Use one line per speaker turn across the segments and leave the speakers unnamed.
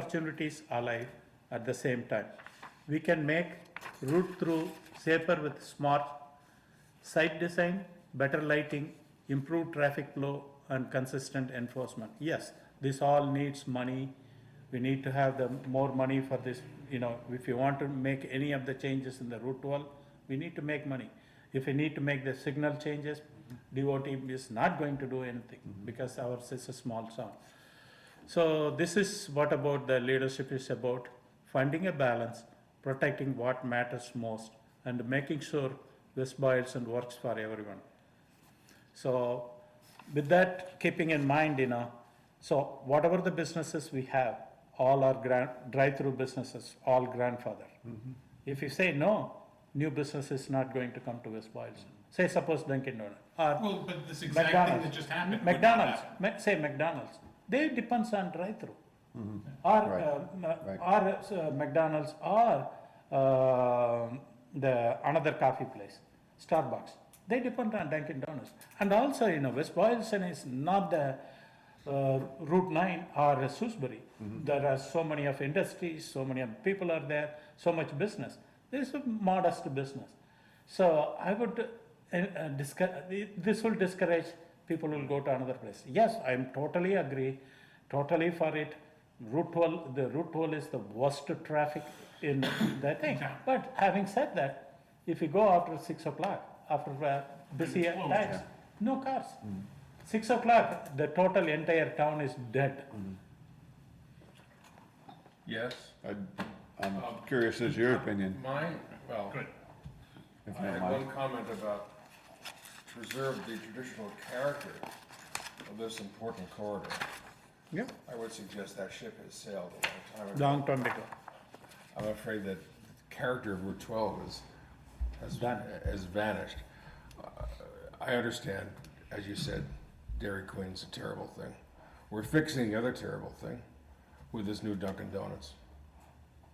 opportunities alive at the same time. We can make route through safer with smart site design, better lighting, improved traffic flow, and consistent enforcement. Yes, this all needs money. We need to have the more money for this, you know, if you want to make any of the changes in the route wall, we need to make money. If we need to make the signal changes, DOT is not going to do anything because ours is a small town. So this is what about the leadership is about finding a balance, protecting what matters most, and making sure this boils and works for everyone. So with that keeping in mind, you know, so whatever the businesses we have, all are grand, drive-through businesses, all grandfather. If you say no, new business is not going to come to West Boylston. Say suppose Dunkin' Donut or
Well, but this exact thing
McDonald's.
that just happened. would not
McDonald's,
happen.
Ma- say McDonald's, they depends on drive-through. Or,
Mm-hmm. Right.
uh, m-
Right.
or uh, McDonald's or um the another coffee place, Starbucks. They depend on Dunkin' Donuts. And also, you know, West Boylston is not the uh, Route 9 or Sewsbury.
Mm-hmm.
There are so many of industries, so many of people are there, so much business. This is a modest business. So I would, uh, uh, discour- this will discourage people will go to another place. Yes, I am totally agree, totally for it. Route 12, the Route 12 is the worst traffic in the thing. But having said that, if you go after 6 o'clock, after uh, busy
It's closed,
times, no cars. 6 o'clock, the total entire town is dead.
Yes.
I- I'm curious as your opinion,
Mine, well,
Good.
if
I
you don't
had
mind.
one comment about preserve the traditional character of this important corridor.
Yeah.
I would suggest that ship has sailed a long time ago.
Long time ago.
I'm afraid that the character of Route 12 is, has,
Done.
has vanished. Uh, I understand, as you said, Dairy Queen's a terrible thing. We're fixing the other terrible thing with this new Dunkin' Donuts.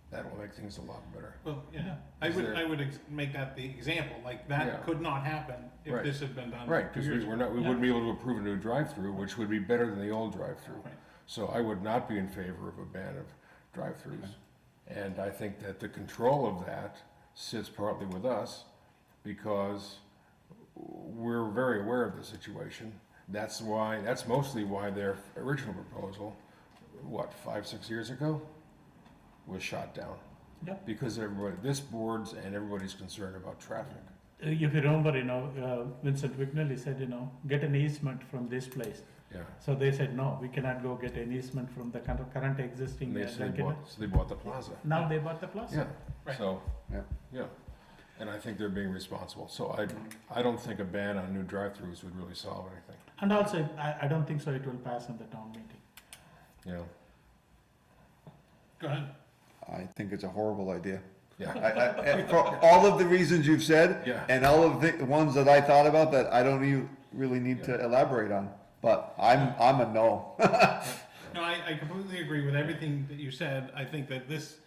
That will make things a lot better.
Well, yeah, I
Is
would,
there-
I would ex- make that the example, like
Yeah.
that could not happen if
Right.
this had been done.
Right,
two
because we
years
were
ago.
not, we wouldn't be able to approve a new drive-through, which would be better than the old drive-through.
Right.
So I would not be in favor of a ban of drive-throughs. And I think that the control of that sits partly with us, because we're very aware of the situation. That's why, that's mostly why their original proposal, what, five, six years ago, was shot down.
Yeah.
Because everybody, this board's and everybody's concerned about traffic.
Uh, If you remember, you know, uh, Vincent Wignelli said, you know, get an easement from this place.
Yeah.
So they said, no, we cannot go get an easement from the current, current existing.
And they,
uh,
so they
Dunkin'.
bought, so they bought the plaza.
Now they bought the
Yeah,
plaza.
Right.
so,
Yeah.
yeah, and I think they're being responsible, so I, I don't think a ban on new drive-throughs would really solve anything,
And also, I, I don't think so it will pass in the town meeting.
Yeah,
Go ahead.
I think it's a horrible idea. I,
Yeah,
I, and for all of the reasons you've said,
Yeah.
and all of the ones that I thought about that I don't even really need to elaborate on, but I'm, I'm a no.
No, I, I completely agree with everything that you said. I think that this,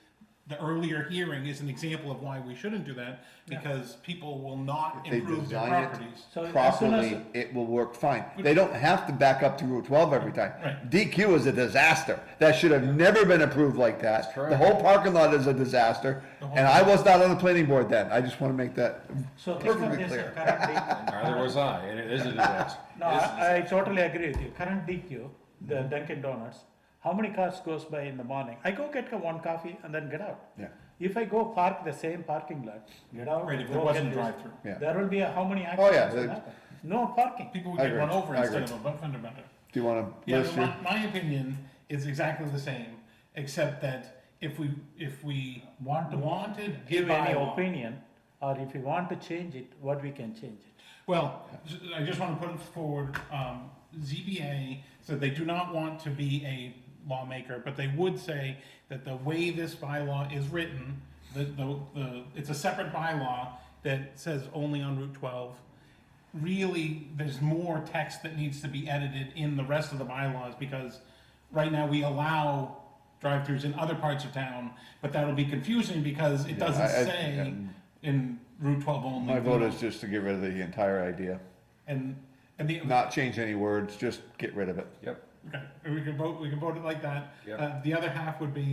the earlier hearing is an example of why we shouldn't do that because people will not
If they
improve their
design it-
properties.
So as soon as-
Properly, it will work fine. They don't have to back up to Route twelve every time.
Right.
DQ is a disaster. That should have never been approved like that. The
correct.
whole parking lot is a disaster, and I was not on the planning board then. I just wanna make that
So think of
perfectly
this
clear.
current
neither was I, and it is a disaster.
No, I, I totally agree with you. Current DQ, the Dunkin' Donuts, how many cars goes by in the morning? I go get one coffee and then get out.
Yeah.
If I go park the same parking lot, get out.
Right, if
go
there
get
wasn't
this,
drive-through.
Yeah.
There will be a, how many accidents
yeah,
will
they-
happen? No parking.
People would
I
get
agree.
run over
I
instead of
agree.
a fender bender.
Do you wanna
Yeah,
list
but
your?
my, my opinion is exactly the same, except that if we, if we
Want to-
wanted a
Give any
bylaw-
opinion, or if you want to change it, what we can change it.
Well, j- I just want to put forward, um, ZBA said they do not want to be a lawmaker, but they would say that the way this bylaw is written, the, the, the, it's a separate bylaw that says only on Route twelve. Really, there's more text that needs to be edited in the rest of the bylaws, because right now we allow drive-throughs in other parts of town, but that'll be confusing because it
I-
doesn't
I-
say in Route twelve only.
My vote is just to get rid of the entire idea.
And, and the,
Not change any words, just get rid of it.
Yep,
Okay, we can vote, we can vote it like that.
Yep.
Uh, The other half would be